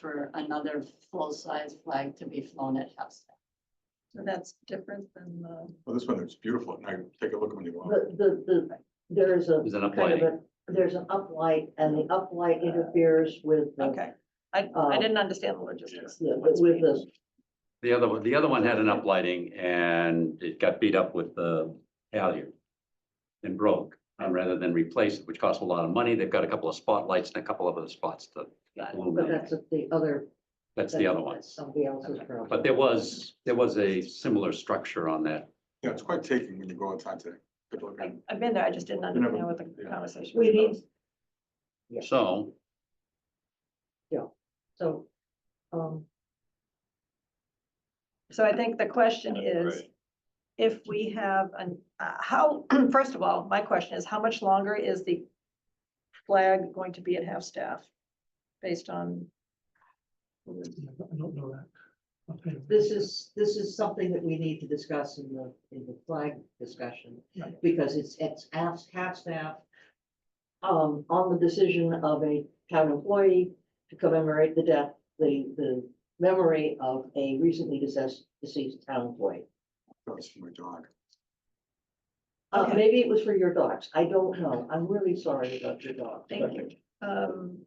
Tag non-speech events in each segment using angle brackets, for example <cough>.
for another full-size flag to be flown at half staff. So that's different than the, Well, this one is beautiful, and I take a look when you want. The, the, the, there's a. There's an kind of a- There's an uplight and the uplight interferes with. the- okay, I, I didn't understand the logistics. Um, Yeah, but with the, The other one, the other one had an uplighting and it got beat up with the halyard and broke, um, rather than replace it, which costs a lot of money. They've got a couple of spotlights and a couple of other spots to but illuminate. that's the other. That's the other one. that's Somebody else's problem. But there was, there was a similar structure on that. Yeah, it's quite taking when you go outside today. Good look. I- I've been there, I just didn't never- understand what the yeah. conversation We was. need, Yeah. So so, um, So I think the question is, if we have an, uh, how, <clears throat> first of all, my question is, how much longer is the flag going to be at half-staff? Based on, I don't know that. Okay. this is, this is something that we need to discuss in the, in the flag discussion. Right. Because it's, it's half, half staff. Um, on the decision of a town employee to commemorate the death, the, the memory of a recently deceased, deceased town employee. That's for my dog. Uh, Okay. maybe it was for your dogs. I don't know. I'm really sorry about your dog. thank you. Um,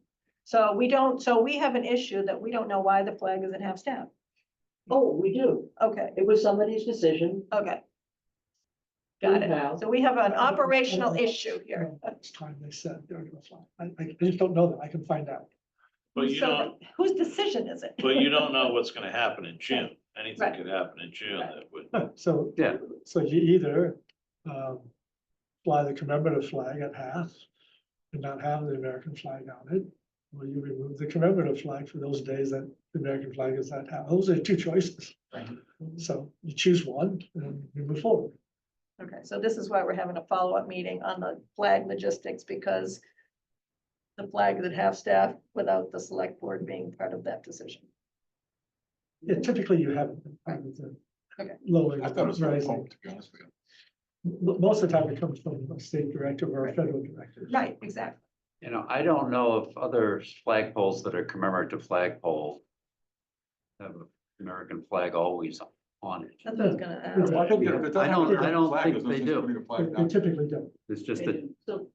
so we don't, so we have an issue that we don't know why the flag is at half-staff. Oh, we do. Okay, It was somebody's decision. okay, got Anyhow, it. So we have an operational issue here. It's time they said they're gonna fly. I, I I just don't know that. I can find out. <laughs> But you So don't, Whose decision is it? but you don't know what's gonna happen in June. Anything Right. could happen in June Right. that would, So. Yeah. So you either, um, fly the commemorative flag at half and not have the American flag on it. Or you remove the commemorative flag for those days that the American flag is at half. Those are two choices. So you choose one and you move forward. Okay, so this is why we're having a follow-up meeting on the flag logistics, because the flag is at half-staff without the select board being part of that decision. Yeah, typically you have part of the Okay. lowering. I thought it was very rising. cool, to be honest with you. Mo- Most of the time it comes from a state directive or a federal directive. Right, exactly. You know, I don't know if other flagpoles that are commemorative flagpole have an American flag always on it. That's what I was gonna Yeah. ask. Well, I think that if it I doesn't don't- have a I don't flag, think there's no they sense do. putting a They flag they down. typically don't. It's just they that, do. So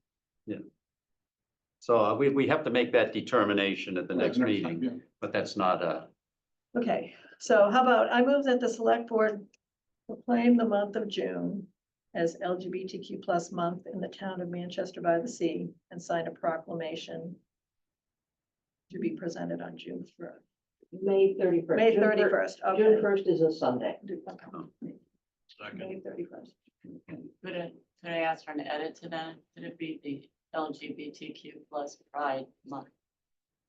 so uh, we, we have to make that determination at the Yeah, next time, meeting, yeah. but that's not a, Okay, so how about, I move that the select board proclaim the month of June as LGBTQ plus month in the town of Manchester by the Sea and sign a proclamation to be presented on June first, May thirty-first. May thirty-first, okay. June first is a Sunday. second, May thirty-first. Could I, could I ask for an edit to that? Could it be the LGBTQ plus Pride Month?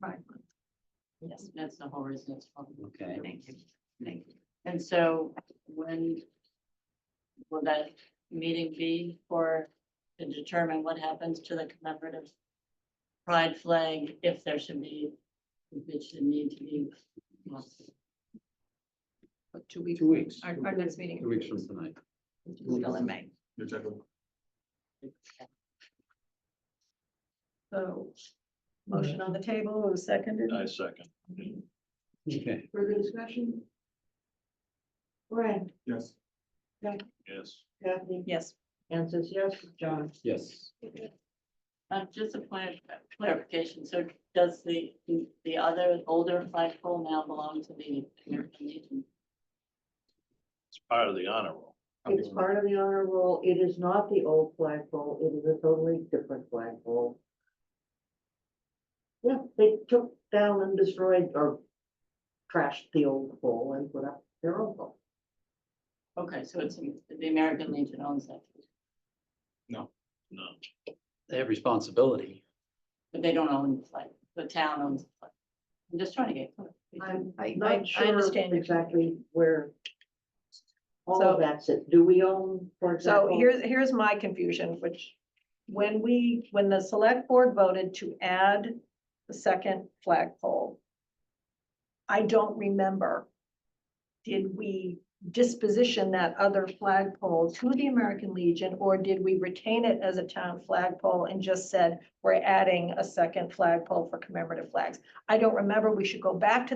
Right. Yes, that's the whole reason it's from. okay. Thank you, thank you. And so when will that meeting be for, to determine what happens to the commemorative pride flag, if there should be, if it should need to be? But two weeks. Two weeks, Our, our next meeting. two weeks from tonight. is Still in May. Your general- So motion on the table, who seconded? I second. Okay, Further discussion? Brian, Yes, Yes, Kathy, Yes. Anne says yes, John. yes. Uh, just a point of clarification, so does the, the other older flagpole now belong to the American Legion? it's part of the honor roll. I'm It's doing it. part of the honor roll. It is not the old flagpole. It is a totally different flagpole. Yeah, they took down and destroyed or trashed the old pole and put up their own pole. Okay, so it's, the American Legion owns that, No, They have responsibility. but they don't own the flag, the town owns the flag. I'm just trying to get. clarification. I'm I- I- I not sure understand your- exactly where all So- of that's it. Do we own, for So example? here's, here's my confusion, which when we, when the select board voted to add the second flagpole, I don't remember, did we disposition that other flagpole to the American Legion? Or did we retain it as a town flagpole and just said, we're adding a second flagpole for commemorative flags? I don't remember. We should go back to